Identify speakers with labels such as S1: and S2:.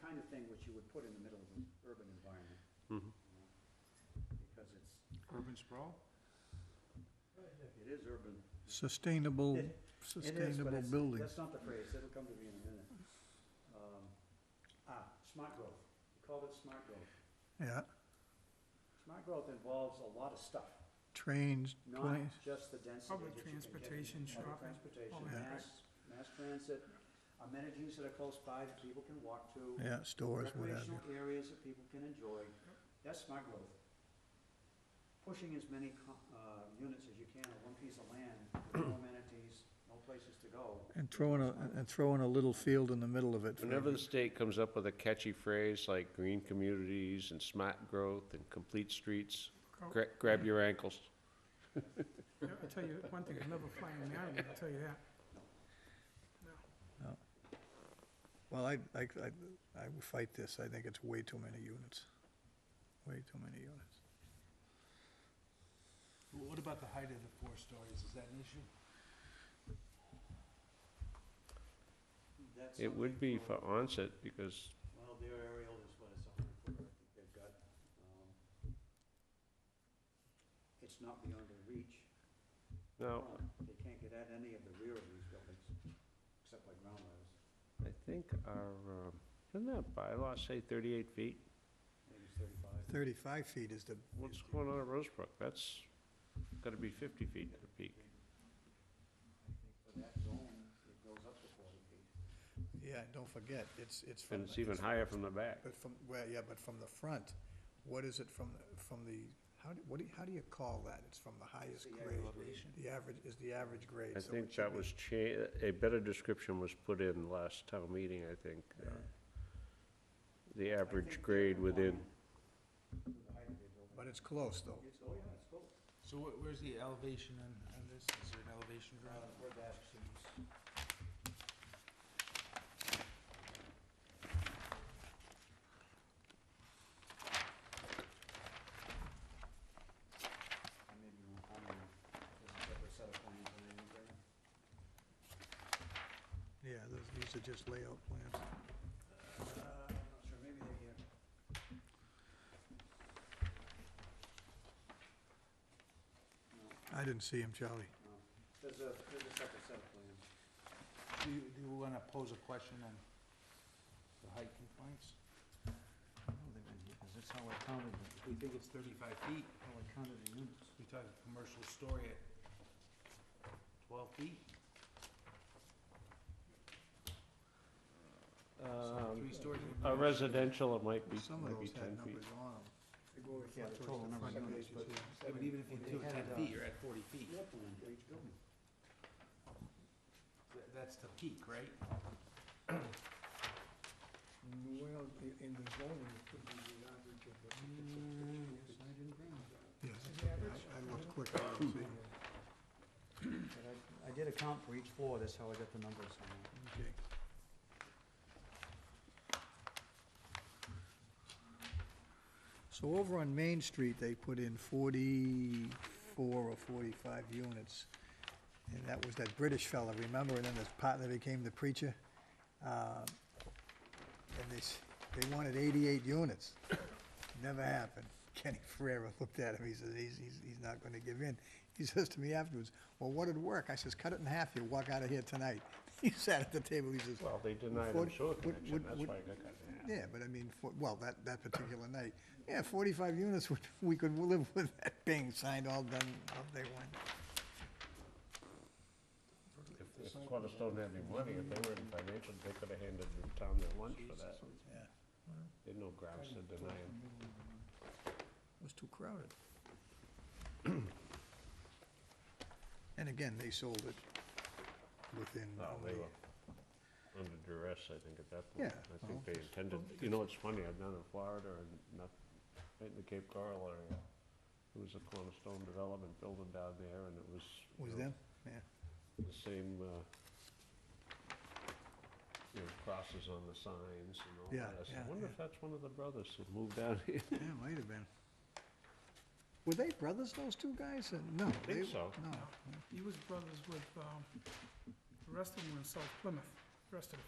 S1: kind of thing which you would put in the middle of an urban environment.
S2: Mm-hmm.
S1: you know, Because it's,
S3: Urban sprawl?
S1: it is urban.
S4: Sustainable,
S1: It- It is, but
S4: sustainable
S1: it's-
S4: buildings.
S1: That's not the phrase, it'll come to me in a minute. Um, Ah, smart growth, we called it smart growth.
S4: Yeah,
S1: Smart growth involves a lot of stuff,
S4: trains,
S1: not
S4: planes,
S1: just the density that you
S5: Public
S1: can get in
S5: transportation,
S1: Public
S5: shopping, all
S1: transportation,
S5: that, right.
S1: mass, mass transit, amenities that are close by that people can walk to.
S4: yeah, stores, whatever.
S1: recreational areas that people can enjoy. That's smart growth. Pushing as many co- uh, units as you can on one piece of land, with no amenities, no places to go.
S4: And throwing a, and throwing a little field in the middle of it. for
S2: Whenever the state comes up with a catchy phrase like green communities and smart growth and complete streets,
S5: Oh,
S2: gra- grab your ankles.
S5: yeah, I'll tell you one thing, I'll never fly in Marion, I'll tell you that.
S4: Well, I, I, I, I would fight this. I think it's way too many units. Way too many units.
S3: What about the height of the four stories? Is that an issue?
S1: That's
S2: It would
S1: something
S2: be for onset because
S1: Well, their aerial is what it's on for, I think they've got, um, it's not beyond their reach.
S2: now,
S1: They can't get at any of the rear of these buildings, except by ground levels,
S2: I think our, um, doesn't that bylaw say thirty-eight feet?
S1: maybe it's thirty-five.
S4: Thirty-five feet is the,
S2: What's going on at Rosebrook? That's gotta be fifty feet at a peak.
S1: For that zone, it goes up to forty feet.
S4: yeah, don't forget, it's, it's from.
S2: And it's even higher from the back.
S4: But from, well, yeah, but from the front, what is it from, the from the, how do, what do, you- how do you call that? It's from the highest
S1: the
S4: grade.
S1: average
S4: The average, is the average grade.
S2: I
S4: so it
S2: think
S4: should
S2: that
S4: be-
S2: was cha- a better description was put in last town meeting, I think. uh, The
S1: I
S2: average
S1: think
S2: grade
S1: they're
S2: within,
S1: compliant with the height of their building.
S4: But it's close, though.
S1: It's, oh yeah, it's cool.
S3: So wh- where's the elevation on, on this? Is there an elevation
S1: Uh,
S3: drawing?
S1: where that seems. I may be wrong, I don't know. There's a separate set of plans in there, isn't there?
S4: Yeah, those, these are just layout plans.
S1: Uh, I'm not sure, maybe they're here. No,
S4: I didn't see him, Charlie.
S1: no, there's a, there's a separate set of plans.
S3: Do you, do you wanna pose a question on the height complaints? Cause that's how I counted them. We think it's thirty-five feet, how I counted the units. We talked commercial story at twelve feet? So
S2: um,
S3: three stories. would be-
S2: a residential, it might be,
S4: Some of
S2: might be
S4: those
S2: ten
S4: had
S2: feet.
S4: numbers on them.
S3: Yeah, the total number of units, but, yeah, but even if you do it ten feet, you're at forty feet.
S1: Floor plan for each building.
S3: Th- That's the peak, right?
S6: Well, i- in the zoning, it could be the average of the.
S1: Yes, I didn't bring that.
S4: Yes,
S6: The average?
S4: I looked quick, I didn't see.
S7: But I, I did account for each floor, that's how I got the numbers on that.
S4: Okay. So over on Main Street, they put in forty-four or forty-five units. And that was that British fella, remember, and then this partner became the preacher? Uh, And they, s- they wanted eighty-eight units. Never happened. Kenny Ferrera looked at him, he says, he's, he's, he's not gonna give in. He says to me afterwards, well, what'd work? I says, cut it in half, you walk out of here tonight. He sat at the table, he says,
S2: Well, they denied him
S4: Forty-
S2: sewer
S4: would-
S2: connection,
S4: would-
S2: that's
S4: would-
S2: why I got cut in half.
S4: yeah, but I mean, for, well, that, that particular night, yeah, forty-five units, would- we could live with that being signed all done, all day one.
S2: If- If Cornerstone had any money, if they were in financial, they could have handed the town their lunch for that.
S4: Yeah.
S2: They had no grounds to deny him.
S4: It was too crowded. And again, they sold it within.
S2: No, they
S4: only-
S2: were under duress, I think, at that point.
S4: Yeah,
S2: I think
S4: well,
S2: they intended, you know, it's funny, I've done it in Florida and not, right in the Cape Coral area. It was a Cornerstone Development building down there and it was. you
S4: Was
S2: know,
S4: them, yeah.
S2: the same, uh, you know, crosses on the signs and all
S4: Yeah,
S2: that. I said,
S4: yeah,
S2: I wonder
S4: yeah.
S2: if that's one of the brothers who moved out here.
S4: Yeah, might have been. Were they brothers, those two guys? Uh, No.
S2: I
S4: they-
S2: think so.
S4: No.
S5: He was brothers with, um, the rest of them were in South Plymouth, the rest of the